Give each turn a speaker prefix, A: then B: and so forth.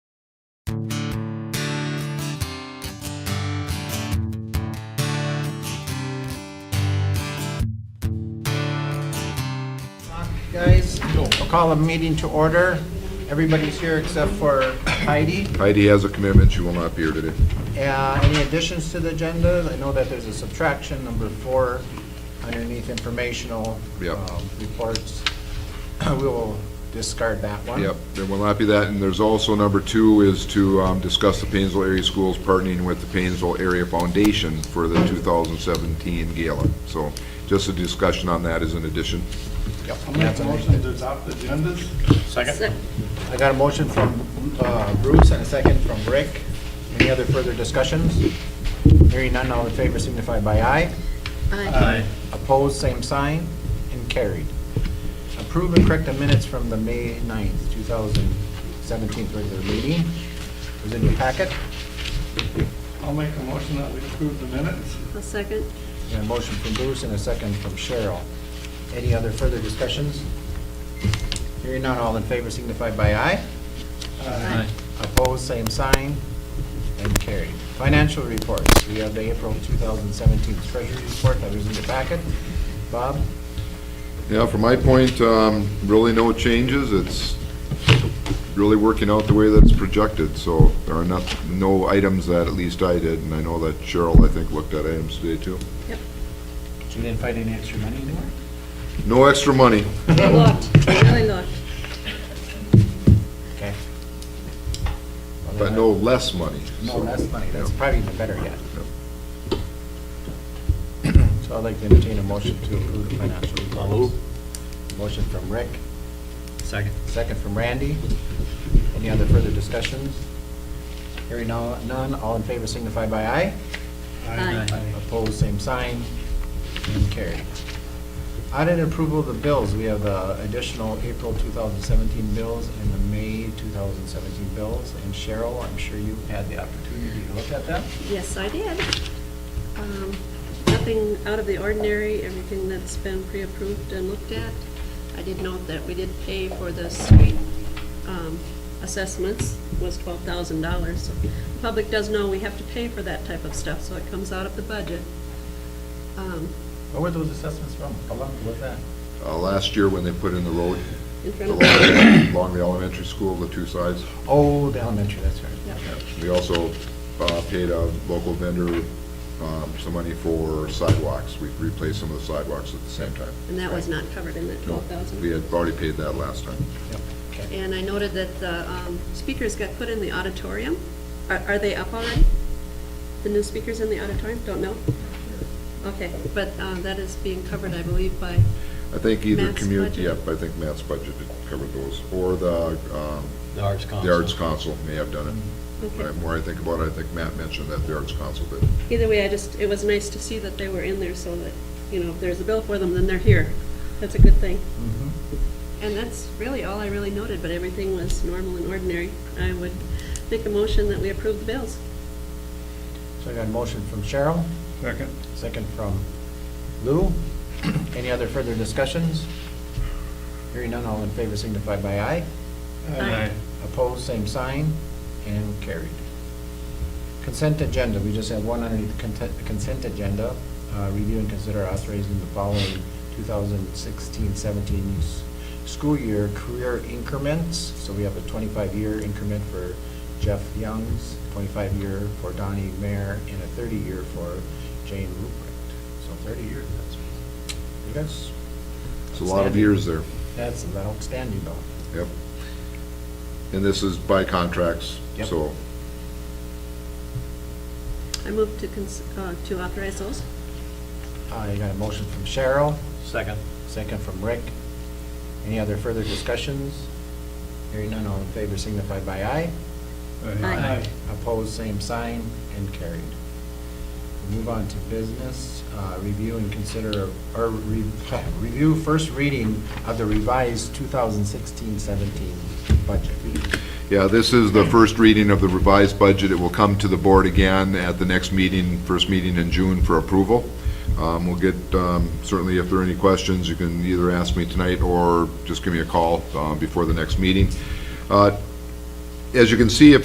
A: guys. I'll call a meeting to order. Everybody's here except for Heidi.
B: Heidi has a commitment, she will not be here today.
A: Uh, Any additions to the agenda? I know that there's a subtraction, number four, underneath informational
B: Yep.
A: um, reports. We will discard that one.
B: Yep, there will not be that, and there's also number two is to um, discuss the Painesville Area Schools partnering with the Painesville Area Foundation for the 2017 gala. So just a discussion on that is in addition.
A: Yep.
C: I'll make a motion to adopt the agendas.
D: Second?
A: I got a motion from uh, Bruce and a second from Rick. Any other further discussions? Hearing none, all in favor signify by aye.
C: Aye.
A: Opposed, same sign, and carried. Approve and correct the minutes from the May 9th, 2017 regular meeting. It was in your packet.
C: I'll make a motion that we approve the minutes.
D: A second?
A: And a motion from Bruce and a second from Cheryl. Any other further discussions? Hearing none, all in favor signify by aye.
C: Aye.
A: Opposed, same sign, and carried. Financial reports, we have the April 2017 treasury report that was in your packet. Bob,
B: Yeah, from my point, um, really no changes, it's really working out the way that it's projected, so there are not, no items that at least I did, and I know that Cheryl, I think, looked at items today too.
D: Yep.
A: so you didn't find any extra money anymore?
B: No extra money.
D: We looked, we really looked.
A: Okay. Well,
B: But
A: then
B: no less money.
A: No,
B: so-
A: that's money, that's
B: Yeah.
A: probably even better yet.
B: Yep.
A: So I'd like to entertain a motion to approve the financial reports. Motion from Rick,
E: Second.
A: second from Randy. Any other further discussions? Hearing no- none, all in favor signify by aye.
D: Aye.
A: Opposed, same sign, and carried. Audit approval of the bills, we have the additional April 2017 bills and the May 2017 bills. And Cheryl, I'm sure you had the opportunity to look at them.
D: Yes, I did. Um, Nothing out of the ordinary, everything that's been pre-approved and looked at. I did note that we did pay for the street um, assessments, was twelve thousand dollars. The Public does know we have to pay for that type of stuff, so it comes out of the budget. Um,
A: Where were those assessments from? How long was that?
B: Uh, last year when they put in the road,
D: In front of,
B: along along the elementary school, the two sides,
A: Oh, the elementary, that's right.
D: Yep.
B: we also, uh, paid a local vendor, um, some money for sidewalks. We replaced some of the sidewalks at the same time.
D: and that was not covered in that
B: No,
D: twelve thousand.
B: We had already paid that last time.
A: Yep, okay.
D: And I noted that the um, speakers got put in the auditorium. Are are they up already? The new speakers in the auditorium? Don't know? Okay, but uh, that is being covered, I believe, by,
B: I think either
D: Matt's
B: community,
D: budget?
B: yep, I think Matt's budget covered those, or the, um,
E: The Arts Council.
B: the Arts Council may have done it.
D: Okay.
B: The more I think about it, I think Matt mentioned that the Arts Council did.
D: either way, I just, it was nice to see that they were in there so that, you know, if there's a bill for them, then they're here. That's a good thing.
A: Mm-hmm.
D: And that's really all I really noted, but everything was normal and ordinary. I would make a motion that we approve the bills.
A: So I got a motion from Cheryl,
C: Second.
A: second from Lou. Any other further discussions? Hearing none, all in favor signify by aye.
D: Aye.
A: Opposed, same sign, and carried. Consent agenda, we just have one underneath the content- consent agenda. Uh, Review and consider us raising the following 2016-17 s- school year career increments. So we have a 25-year increment for Jeff Youngs, 25-year for Donnie Mayer, and a 30-year for Jane Ruprecht. So 30 years, that's, you guys,
B: It's a lot of
A: Outstanding.
B: years there,
A: that's outstanding though.
B: yep. And this is by contracts,
A: Yep.
B: so
D: I move to cons- uh, to authorize those.
A: I Uh, got a motion from Cheryl.
E: Second.
A: Second from Rick. Any other further discussions? Hearing none, all in favor signify by aye.
D: Aye.
A: Opposed, same sign, and carried. Move on to business, uh, review and consider, or re- review first reading of the revised 2016-17 budget.
B: Yeah, this is the first reading of the revised budget. It will come to the board again at the next meeting, first meeting in June for approval. Um, We'll get, um, certainly if there are any questions, you can either ask me tonight um, or just give me a call uh, before the next meeting. Uh, As you can see, if